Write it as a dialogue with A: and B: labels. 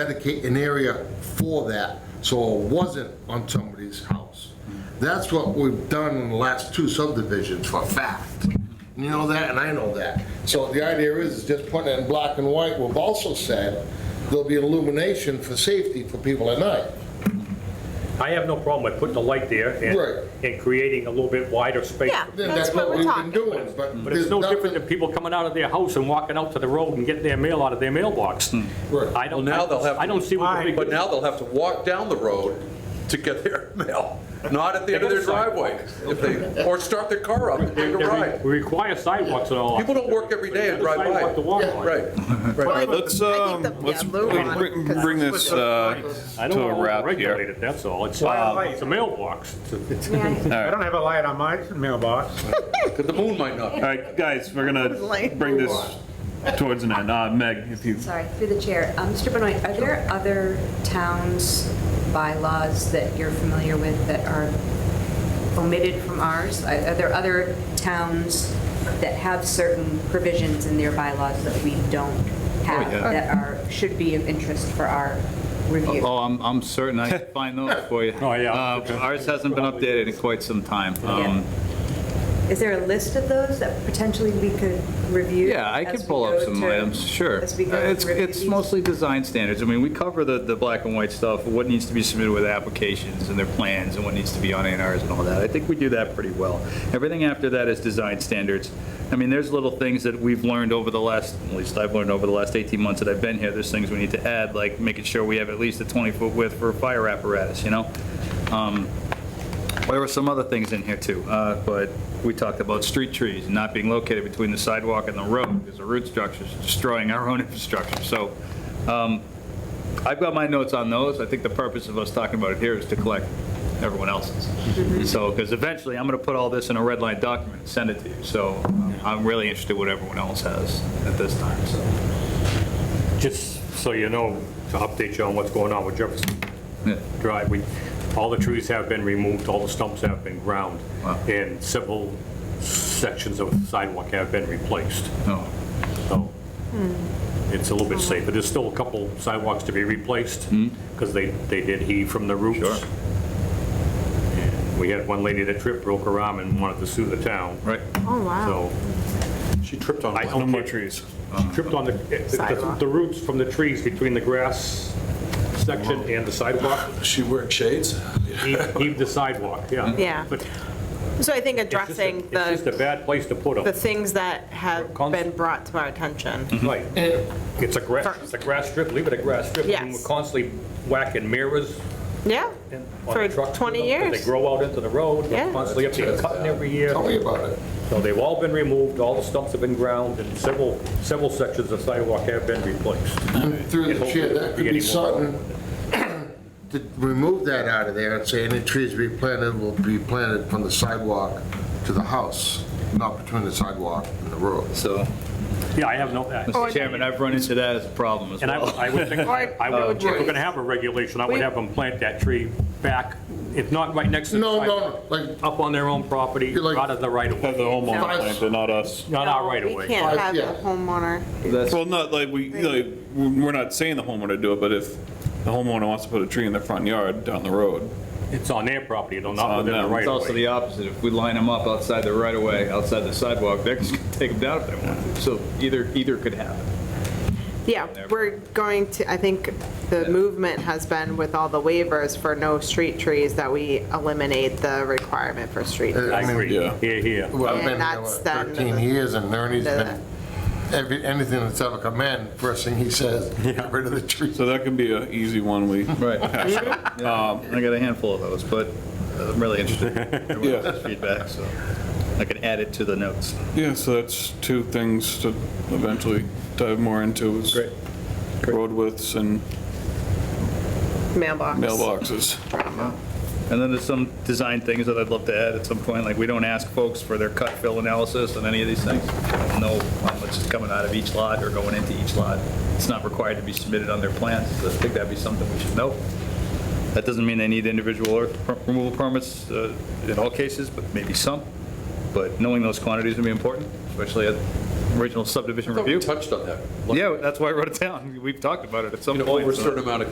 A: dedicate an area for that, so it wasn't on somebody's house. That's what we've done in the last two subdivisions for a fact. You know that, and I know that. So the idea is, is just putting it in black and white. We've also said there'll be illumination for safety for people at night.
B: I have no problem with putting the light there
A: Right.
B: and, and creating a little bit wider space.
C: Yeah.
A: Then
C: That's
A: that's
C: what
A: what
C: we're
A: we've been
C: talking.
A: doing, but.
B: But it's no different than people coming out of their house and walking out to the road and getting their mail out of their mailbox.
A: Right.
B: I don't,
D: Now they'll have
B: I don't see what the big.
D: But now they'll have to walk down the road to get their mail, not at the end of their driveway, if they, or start their car up and take
B: They
D: a
B: re-
D: ride.
B: We require sidewalks and all.
D: People don't work every day and
B: There's
D: drive
B: a sidewalk to
D: by.
B: walk on.
D: Right,
E: All
D: right.
E: right, let's,
C: I
E: um,
C: think the-
E: let's
C: yeah, low
E: bring-
C: one,
E: bring-
C: 'cause
E: bring this uh,
B: I
E: to
B: don't
E: a
B: want to
E: wrap here.
B: regulate it, that's all. It's, uh, it's a mailbox.
F: I don't have a light on my mailbox.
D: because the moon might not.
E: All right, guys, we're gonna
C: Like-
E: bring this towards an end. Uh, Meg, if you,
G: Sorry, through the chair. Um, Mr. Benoit, are there other towns' bylaws that you're familiar with that are omitted from ours? Are are there other towns that have certain provisions in their bylaws that we don't
H: Oh,
G: have, that are, should be of interest for our review?
H: Oh, I'm, I'm certain I can find those for you.
B: Oh, yeah.
H: Uh, Ours hasn't been updated in quite some time. Um,
G: Is there a list of those that potentially we could review?
H: Yeah, I
G: as
H: could
G: we
H: pull up
G: go
H: some
G: to-
H: items, sure.
G: As we go
H: Uh, It's,
G: through
H: it's
G: these?
H: mostly design standards. I mean, we cover the, the black and white stuff, what needs to be submitted with applications and their plans and what needs to be on A and Rs and all that. I think we do that pretty well. Everything after that is design standards. I mean, there's little things that we've learned over the last, at least I've learned over the last 18 months that I've been here, there's things we need to add, like making sure we have at least a 20-foot width for a fire apparatus, you know? Um, There were some other things in here too, uh, but we talked about street trees not being located between the sidewalk and the road because the root structure's destroying our own infrastructure. So um, I've got my notes on those. I think the purpose of us talking about it here is to collect everyone else's. So, because eventually I'm going to put all this in a red line document and send it to you. So um, I'm really interested what everyone else has at this time, so.
B: Just so you know, to update you on what's going on with Jefferson
H: yeah.
B: Drive, we, all the trees have been removed, all the stumps have been ground,
H: Wow.
B: and several sections of sidewalk have been replaced.
H: Oh,
B: So it's a little bit safer. There's still a couple sidewalks to be replaced because they, they did heave from the roots.
H: Sure.
B: And We had one lady that tripped, broke her arm and wanted to sue the town.
H: Right.
C: Oh, wow.
B: So
D: She
C: Oh.
D: tripped on
B: I
D: one.
B: don't care. Trees. Tripped on the, the- the roots from the trees between the grass section and the sidewalk,
D: She wearing shades?
B: heaved heaved the sidewalk, yeah.
C: Yeah.
B: But it's
C: So I think
B: just a-
C: addressing
B: It's just a
C: the,
B: bad place to put
C: the
B: them,
C: things that have
B: Cons-
C: been brought to our attention.
B: right. It's a grass, it's a grass strip, leave it a grass strip. I mean,
C: Uh, Yes.
B: We're constantly whacking mirrors
C: Yeah,
B: and on
C: for
B: the trucks with
C: 20
B: them, 'cause
C: years.
B: They grow out into the road, they're
C: Yeah.
B: constantly up there cutting every year.
A: Tell me about it.
B: So they've all been removed, all the stumps have been ground, and several, several sections of sidewalk have been replaced.
C: Uh-huh.
A: Through the chair, that could be
B: Getting more-
A: something to remove that out of there and say any trees replanted will be planted from the sidewalk to the house, not between the sidewalk and the road.
H: So,
B: Yeah, I have no, I-
H: Mr. Chairman, I've run into that as a problem as
B: and I
H: well.
B: would- I would think,
C: Or-
B: I would, if we're gonna have a regulation, I would
C: We-
B: have them plant that tree back, if not right next to the
A: No,
B: sidewalk,
A: no, like
B: up on their own property,
A: You're like-
B: out of the right of
E: have
B: way,
E: the homeowner plant it, not us.
B: not our right of
C: We
B: way.
C: can't
A: Uh,
C: have
A: yeah.
C: a homeowner.
H: That's-
E: Well, not like we, like, we're not saying the homeowner do it, but if the homeowner wants to put a tree in their front yard down the road,
B: It's on their property, though,
E: on
B: not within the
E: them.
B: right
H: It's
B: of
H: also
B: way.
H: the opposite. If we line them up outside the right of way, outside the sidewalk, they're just gonna take them down if they want to. So either, either could happen.
C: Yeah, we're going to, I think the movement has been with all the waivers for no street trees that we eliminate the requirement for street. trees.
B: I agree,
E: Yeah.
B: here, here.
A: Well, I've
C: And
A: been here
C: that's
A: what,
C: them.
A: 13 years, and Ernie's
C: Do
A: been, every, anything that's ever come in, first thing he says, get rid of the trees.
E: so that can be an easy one we.
H: Right. Um, I got a handful of those, but I'm really interested in
E: Yeah. else's
H: feedback, so I can add it to the notes.
E: Yeah, so that's two things to eventually dive more into is
H: Great.
E: road widths and
C: Mailbox.
E: mailboxes.
H: And then there's some design things that I'd love to add at some point, like we don't ask folks for their cut fill analysis on any of these things. We don't Know how much is coming out of each lot or going into each lot. It's not required to be submitted on their plans, so I think that'd be something we should know. That doesn't mean they need individual earth per- removal permits uh, in all cases, but maybe some. But knowing those quantities would be important, especially at original subdivision
D: I thought we
H: review.
D: touched on that.
H: Yeah, that's why I wrote it down. We've talked about it at some
D: You know,
H: point.
D: over a
H: so-
D: certain amount of